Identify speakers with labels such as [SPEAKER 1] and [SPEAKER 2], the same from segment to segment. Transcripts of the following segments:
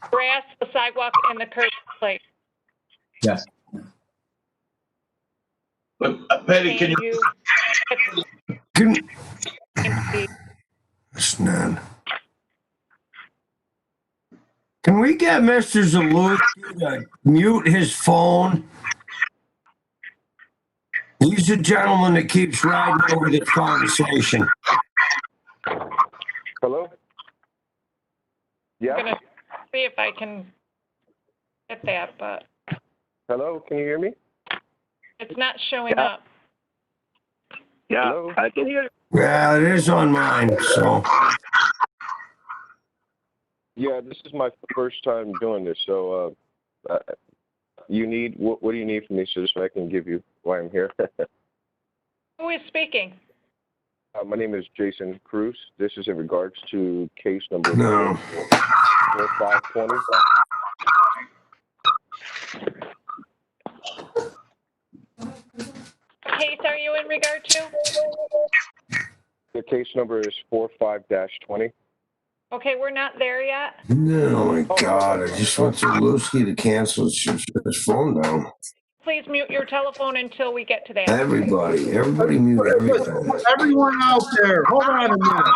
[SPEAKER 1] grass, the sidewalk, and the curb place.
[SPEAKER 2] Yes.
[SPEAKER 3] But uh, Patty, can
[SPEAKER 1] And
[SPEAKER 3] you,
[SPEAKER 1] you.
[SPEAKER 4] Can-
[SPEAKER 1] And the-
[SPEAKER 4] It's none. Can we get Mr. Zaluki to mute his phone? He's a gentleman that keeps riding over the conversation.
[SPEAKER 5] Hello?
[SPEAKER 1] I'm
[SPEAKER 5] Yeah,
[SPEAKER 1] gonna see if I can get that, but
[SPEAKER 5] hello, can you hear me?
[SPEAKER 1] it's not showing
[SPEAKER 6] Yeah.
[SPEAKER 1] up.
[SPEAKER 6] Yeah,
[SPEAKER 5] Hello?
[SPEAKER 6] I can hear you.
[SPEAKER 4] Yeah, it is on mine, so.
[SPEAKER 5] Yeah, this is my first time doing this, so, uh, uh, you need, what, what do you need from me so just I can give you why I'm here? Uh,
[SPEAKER 1] Who is speaking?
[SPEAKER 5] my name is Jason Cruz. This is in regards to case number
[SPEAKER 4] No.
[SPEAKER 5] four five twenty.
[SPEAKER 1] What Case are you in regard to?
[SPEAKER 5] The case number is four five dash twenty.
[SPEAKER 1] Okay, we're not there yet.
[SPEAKER 4] No, my God, I just want Zaluki to cancel his, his phone down.
[SPEAKER 1] Please mute your telephone until we get to that.
[SPEAKER 4] Everybody, everybody mute everything.
[SPEAKER 2] Everyone out there, hold on a minute.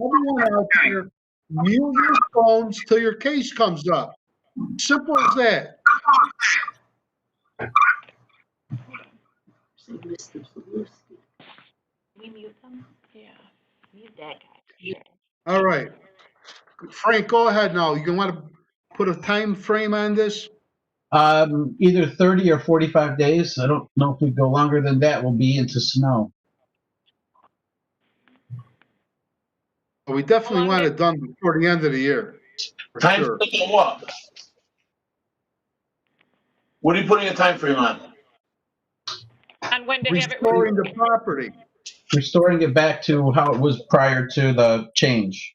[SPEAKER 2] Everyone out there, mute your phones till your case comes up. Simple as that.
[SPEAKER 7] We mute them?
[SPEAKER 1] Yeah.
[SPEAKER 7] Mute that guy.
[SPEAKER 2] All right. Frank, go ahead now. You want to put a time frame on this?
[SPEAKER 8] Um, either thirty or forty-five days. I don't know if we go longer than that, we'll be into snow.
[SPEAKER 2] We definitely want it done before the end of the year. for
[SPEAKER 3] time
[SPEAKER 2] sure.
[SPEAKER 3] frame for what? What are you putting a time frame on?
[SPEAKER 1] On when to have it.
[SPEAKER 2] Restoring the property.
[SPEAKER 8] Restoring it back to how it was prior to the change.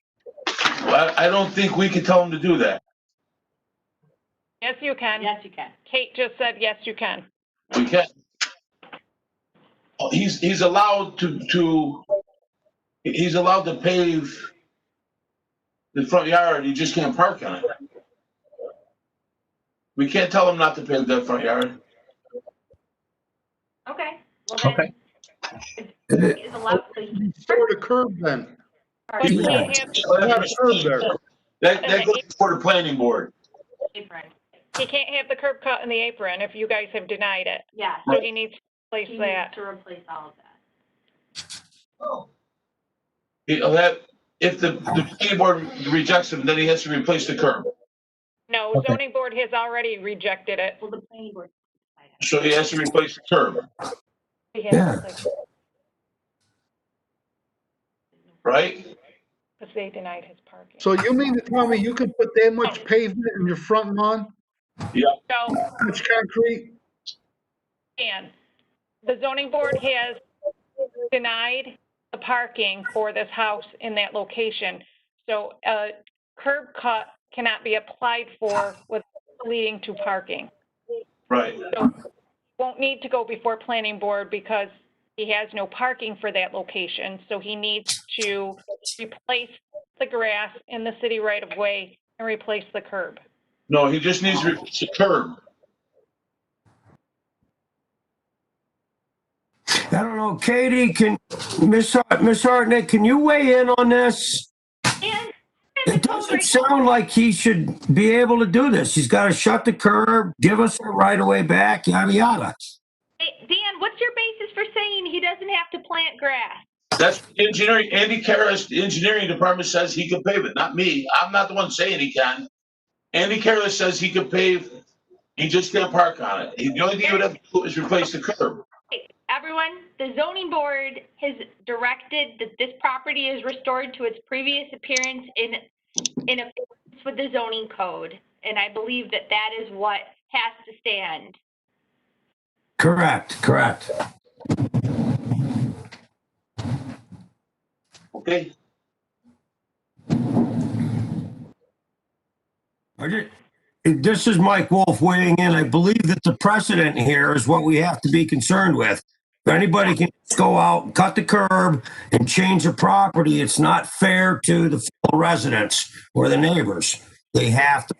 [SPEAKER 3] Well, I I don't think we can tell them to do that.
[SPEAKER 1] Yes, you can.
[SPEAKER 7] Yes, you can.
[SPEAKER 1] Kate just said, yes, you can.
[SPEAKER 3] We can. not He's, he's allowed to, to, he's allowed to pave the front yard, he just can't park on it. We can't tell him not to pave that front yard.
[SPEAKER 7] Okay. Well, then, it's allowed to-
[SPEAKER 2] Restore the curb then.
[SPEAKER 7] or
[SPEAKER 1] But
[SPEAKER 7] you
[SPEAKER 1] you
[SPEAKER 7] can
[SPEAKER 1] can't have,
[SPEAKER 2] Have a curb there.
[SPEAKER 3] That, that goes before the planning board.
[SPEAKER 7] pay for it.
[SPEAKER 1] he can't have the curb cut in the apron if you guys have denied it.
[SPEAKER 7] Yeah,
[SPEAKER 1] So he needs to place
[SPEAKER 7] he needs
[SPEAKER 1] that.
[SPEAKER 7] to replace all of that.
[SPEAKER 3] He'll have, uh, if the, the planning board rejects him, then he has to replace the curb.
[SPEAKER 1] No,
[SPEAKER 8] Okay.
[SPEAKER 1] zoning board has already rejected it.
[SPEAKER 7] Well, the planning board. can decide
[SPEAKER 3] So he has to replace the curb,
[SPEAKER 1] We have to
[SPEAKER 4] Yeah.
[SPEAKER 1] place-
[SPEAKER 3] right?
[SPEAKER 1] Because they denied his parking.
[SPEAKER 2] So you mean to tell me you could put that much pavement in your front lawn?
[SPEAKER 1] So,
[SPEAKER 2] That Much concrete?
[SPEAKER 1] Dan, the zoning board has denied the parking for this house in that location. So a curb cut cannot be applied for with leading to parking.
[SPEAKER 3] Right.
[SPEAKER 1] Won't need to go before planning board because he has no parking for that location. So he needs to replace the grass in the city right of way and replace the curb.
[SPEAKER 3] No, he just needs to replace the curb.
[SPEAKER 4] I don't know, Katie, can, Miss Hart- Miss Hartnett, can you weigh in on this?
[SPEAKER 7] And-
[SPEAKER 4] It doesn't sound like he should be able to do this. He's got to shut the curb, give us the right of way back, yada, yada.
[SPEAKER 7] Hey, Dan, what's your basis for saying he doesn't have to plant grass?
[SPEAKER 3] That's engineering, Andy Karas, the engineering department says he can pave it, not me. I'm not the one saying he can. Andy Karas says he can pave, he just can't park on it. The only thing he would have to do is replace the curb.
[SPEAKER 7] Everyone, the zoning board has directed that this property is restored to its previous appearance in, in accordance with the zoning code. And I believe that that is what has to stand.
[SPEAKER 4] Correct, correct.
[SPEAKER 3] Okay?
[SPEAKER 4] I did- This is Mike Wolf weighing in. I believe that the precedent here is what we have to be concerned with. If anybody can just go out, and cut the curb and change the property, it's not fair to the fellow residents or the neighbors. They have to